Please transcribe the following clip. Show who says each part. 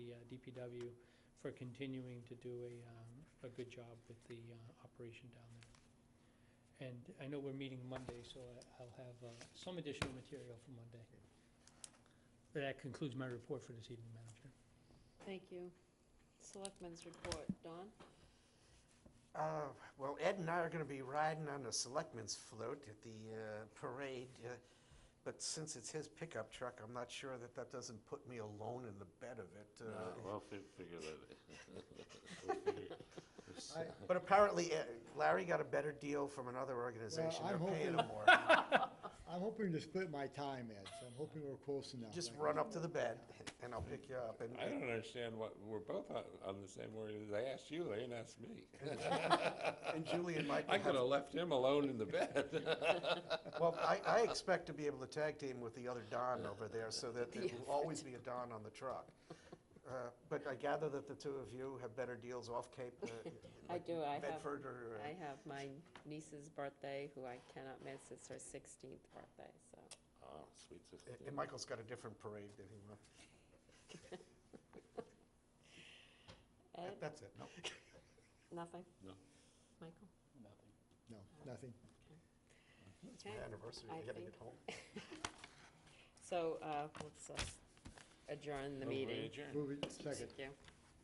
Speaker 1: uh, DPW for continuing to do a, um, a good job with the uh, operation down there. And I know we're meeting Monday, so I- I'll have uh, some additional material for Monday. That concludes my report for this evening, Madam Chair.
Speaker 2: Thank you. Selectmen's report, Don?
Speaker 3: Uh, Well, Ed and I are going to be riding on a selectmen's float at the uh, parade, uh, but since it's his pickup truck, I'm not sure that that doesn't put me alone in the bed of it. uh,
Speaker 4: Uh, We'll fi- figure that.
Speaker 5: I-
Speaker 4: out.
Speaker 3: But apparently uh, Larry got a better deal from another organization.
Speaker 5: I'm
Speaker 3: They're paying him
Speaker 5: hoping-
Speaker 3: more.
Speaker 5: I'm hoping to split my time, Ed, so I'm hoping we're close enough.
Speaker 3: Just
Speaker 5: Like,
Speaker 3: run up to the bed and I'll pick you up. and-
Speaker 4: I don't understand what, we're both on, on the same word, they asked you, they didn't ask me.
Speaker 3: And Julie and Mike will
Speaker 4: I
Speaker 3: have-
Speaker 4: could have left him alone in the bed.
Speaker 3: Well, I, I expect to be able to tag team with the other Don over there so that there will always be a Don on the truck. Uh, But I gather that the two of you have better deals off Cape. uh,
Speaker 2: I
Speaker 3: like
Speaker 2: do, I have-
Speaker 3: Bedford or, uh,
Speaker 2: I have my niece's birthday, who I cannot miss, it's her sixteenth birthday, so.
Speaker 4: Oh, sweet sister.
Speaker 3: and Michael's got a different parade than he wants.
Speaker 2: Ed,
Speaker 3: That's it, no.
Speaker 2: nothing?
Speaker 4: No.
Speaker 2: Michael?
Speaker 5: No, nothing.
Speaker 3: It's my
Speaker 2: Okay.
Speaker 3: anniversary,
Speaker 2: I
Speaker 3: I gotta
Speaker 2: think-
Speaker 3: get home.
Speaker 2: So, uh, let's uh, adjourn the
Speaker 4: Move we
Speaker 2: meeting.
Speaker 4: adjourn.
Speaker 5: Move it, second.
Speaker 2: Thank you.